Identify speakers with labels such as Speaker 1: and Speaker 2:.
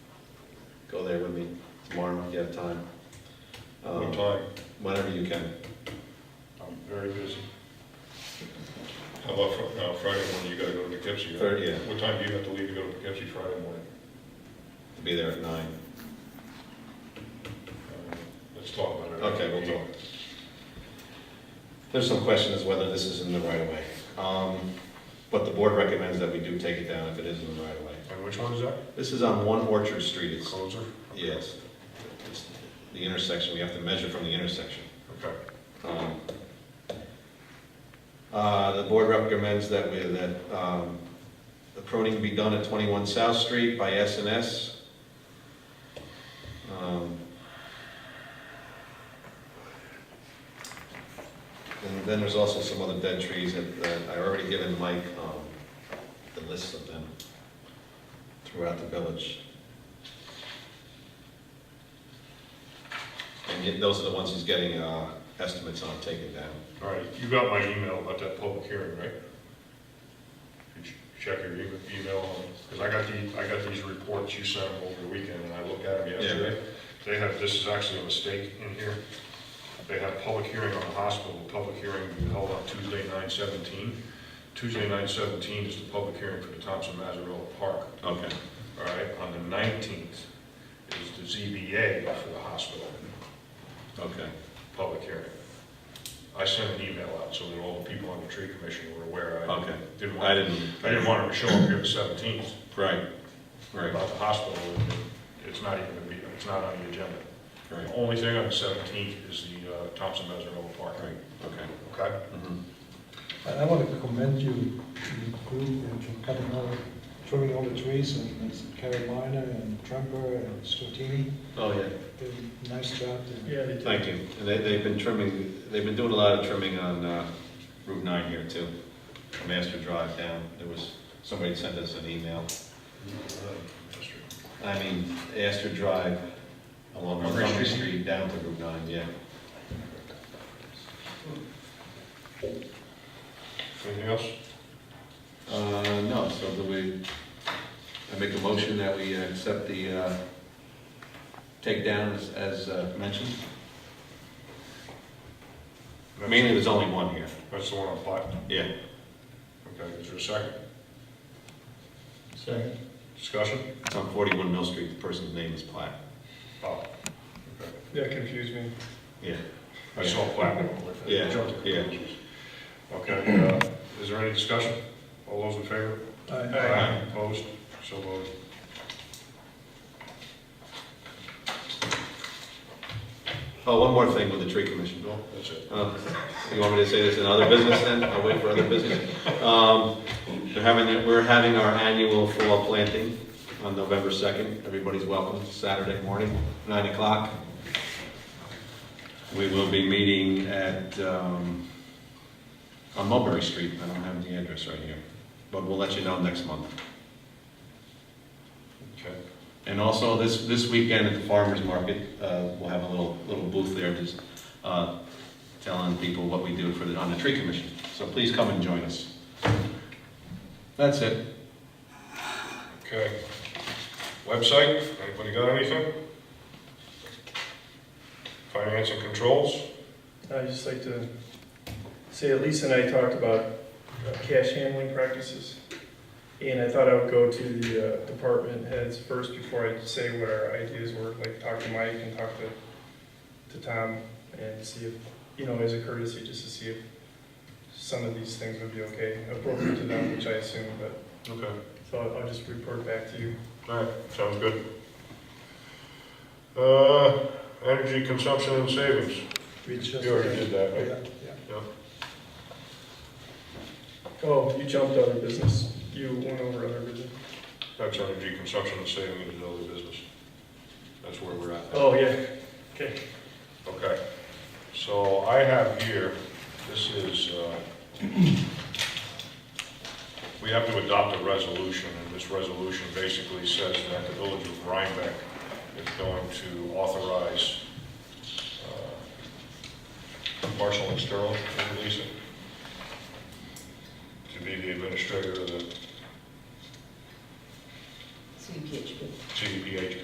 Speaker 1: go there with me tomorrow if you have time.
Speaker 2: What
Speaker 1: Um,
Speaker 2: time?
Speaker 1: Whenever you can.
Speaker 2: I'm very busy. How about Fri- uh, Friday morning, you gotta go to Poughkeepsie? right?
Speaker 1: Third, yeah,
Speaker 2: What time do you have to leave to go to Poughkeepsie Friday morning?
Speaker 1: be there at nine.
Speaker 2: Uh, Let's talk about it.
Speaker 1: Okay, we'll talk. There's some question as whether this is in the right of way. Um, But the board recommends that we do take it down if it is in the right of way.
Speaker 2: And which one is that?
Speaker 1: This is on One Orchard Street, it's,
Speaker 2: Closer?
Speaker 1: yes. It's The intersection, we have to measure from the intersection.
Speaker 2: Okay.
Speaker 1: Um, uh, The board recommends that we, that um, the pruning be done at 21 South Street by S and S. Um, And then there's also some other dead trees that that I already given Mike um, the list of them throughout the village. And yet those are the ones he's getting uh, estimates on taking down.
Speaker 2: All right, you got my email about that public hearing, right? You ch- Check your e- email, because I got the, I got these reports you sent them over the weekend, and I looked at them yesterday. They have, this is actually a mistake in here. They have public hearing on the hospital, public hearing will be held on Tuesday, nine seventeen. Tuesday, nine seventeen is the public hearing for the Thompson Mazzarella Park.
Speaker 1: Okay.
Speaker 2: All right, on the nineteenth is the ZBA for the hospital,
Speaker 1: Okay.
Speaker 2: public hearing. I sent an email out so that all the people on the tree commission were aware. I
Speaker 1: Okay.
Speaker 2: didn't
Speaker 1: I
Speaker 2: want,
Speaker 1: didn't,
Speaker 2: I didn't want to show up here the seventeenth
Speaker 1: right, right,
Speaker 2: about the hospital. and It's not even gonna be, it's not on the agenda. The
Speaker 1: right,
Speaker 2: only thing on the seventeenth is the uh, Thompson Mazzarella Park.
Speaker 1: right, okay.
Speaker 2: Okay?
Speaker 1: Mhm.
Speaker 3: And I want to commend you, you grew and for cutting all, trimming all the trees and Carolina and Tremper and Stratini.
Speaker 1: Oh, yeah.
Speaker 3: Did a nice job. there.
Speaker 4: Yeah, they do.
Speaker 1: Thank you. And they, they've been trimming, they've been doing a lot of trimming on uh, Route 9 here too. Master Drive down, there was, somebody sent us an email. I mean, Astor Drive along
Speaker 2: Montgomery
Speaker 1: Montgomery
Speaker 2: Street?
Speaker 1: Street down to Route 9, yeah.
Speaker 2: Anything else?
Speaker 1: Uh, no, so do we, I make a motion that we accept the uh, takedown as- as uh, mentioned? Mainly, there's only one here.
Speaker 2: That's the one on Platten.
Speaker 1: Yeah.
Speaker 2: Okay, is there a second?
Speaker 4: Second.
Speaker 2: Discussion?
Speaker 1: It's on 41 Mill Street, the person's name is Platt.
Speaker 2: Oh, okay.
Speaker 4: That confused me.
Speaker 1: Yeah.
Speaker 2: I saw platinum with it.
Speaker 1: Yeah,
Speaker 2: Jumped to
Speaker 1: yeah.
Speaker 2: conclusions. Okay, uh, is there any discussion? All those in favor?
Speaker 3: I-
Speaker 1: Aye.
Speaker 2: Opposed? So voted.
Speaker 1: Oh, one more thing with the tree commission, Bill.
Speaker 2: That's it.
Speaker 1: Uh, You want me to say this in other business then? I'll wait for other business. Um, They're having, we're having our annual fall planting on November 2nd. Everybody's welcome, Saturday morning, 9 o'clock. We will be meeting at, um, on Mulberry Street. I don't have the address right here, but we'll let you know next month.
Speaker 2: Okay.
Speaker 1: And also, this, this weekend at the farmer's market, uh, we'll have a little, little booth there, just uh, telling people what we do for the, on the tree commission. So please come and join us. That's it.
Speaker 2: Okay. Website, anybody got anything? Finance and controls?
Speaker 4: I'd just like to say, Elise and I talked about uh, cash handling practices. And I thought I would go to the uh, department heads first before I say what our ideas were, like talk to Mike and talk to, to Tom and see if, you know, as a courtesy, just to see if some of these things would be okay, appropriate to them, which I assume, but,
Speaker 2: Okay.
Speaker 4: so I'll- I'll just report back to you.
Speaker 2: All right, sounds good. Uh, energy consumption and savings.
Speaker 3: We just.
Speaker 2: You already did that, right?
Speaker 3: Yeah, yeah.
Speaker 4: Oh, you jumped other business. You went over other business.
Speaker 2: That's energy consumption and savings is other business. That's where we're at.
Speaker 4: Oh, yeah. Okay.
Speaker 2: Okay, so I have here, this is, uh, we have to adopt a resolution, and this resolution basically says that the village of Rhinebeck is going to authorize uh, Marshall and Sterling to release it, to be the administrator of the
Speaker 5: CPHP.
Speaker 2: CDPH